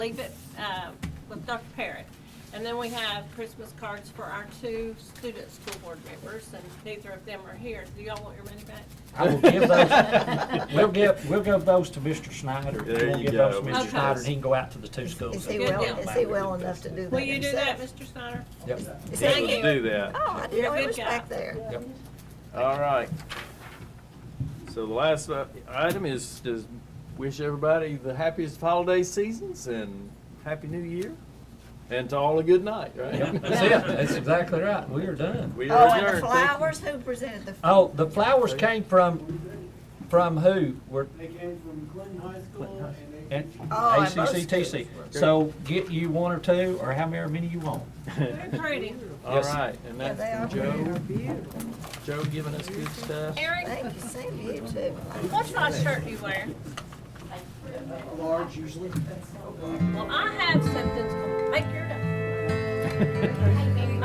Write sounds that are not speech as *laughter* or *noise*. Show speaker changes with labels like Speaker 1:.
Speaker 1: leave it uh, with Dr. Parrott. And then we have Christmas cards for our two student school board members, and neither of them are here. Do y'all want your money back?
Speaker 2: I will give those, we'll give, we'll give those to Mr. Snyder.
Speaker 3: There
Speaker 2: We'll
Speaker 3: you
Speaker 2: give those to
Speaker 3: go,
Speaker 2: Mr.
Speaker 1: Mr.
Speaker 2: Snyder, and he can go out to the two schools.
Speaker 4: Is he
Speaker 1: Good
Speaker 4: well,
Speaker 1: deal.
Speaker 4: is he well enough to do that
Speaker 1: Will you do that,
Speaker 4: himself?
Speaker 1: Mr. Snyder?
Speaker 2: Yep.
Speaker 4: Is
Speaker 1: Thank
Speaker 4: he-
Speaker 1: you.
Speaker 3: Able to do that.
Speaker 4: Oh, I
Speaker 1: You're
Speaker 4: didn't
Speaker 1: a
Speaker 4: know he
Speaker 1: good
Speaker 4: was
Speaker 1: guy.
Speaker 4: back there.
Speaker 2: Yep.
Speaker 3: All right. So the last uh, item is to wish everybody the happiest holiday seasons and happy new year. And to all a good night,
Speaker 2: Yep,
Speaker 3: *laughs* right?
Speaker 2: That's it. That's exactly right. We are done.
Speaker 3: We are
Speaker 4: Oh, and the
Speaker 3: adjourned. Thank you.
Speaker 4: flowers, who presented the?
Speaker 2: Oh, the flowers came from, from who? Were,
Speaker 5: They came from Clinton High School and they.
Speaker 2: and
Speaker 4: Oh, and both
Speaker 2: ACCTC.
Speaker 4: schools.
Speaker 2: So get you one or two, or however many you want.
Speaker 1: Very pretty.
Speaker 3: *laughs* All right, and
Speaker 4: Yeah,
Speaker 3: that's
Speaker 4: they are
Speaker 3: from Joe,
Speaker 4: beautiful.
Speaker 3: Joe giving us good stuff.
Speaker 1: Eric,
Speaker 4: Thank you, same to you too.
Speaker 1: what size shirt do you wear?
Speaker 5: Large usually.
Speaker 1: Well, I have something, that's gonna make your day.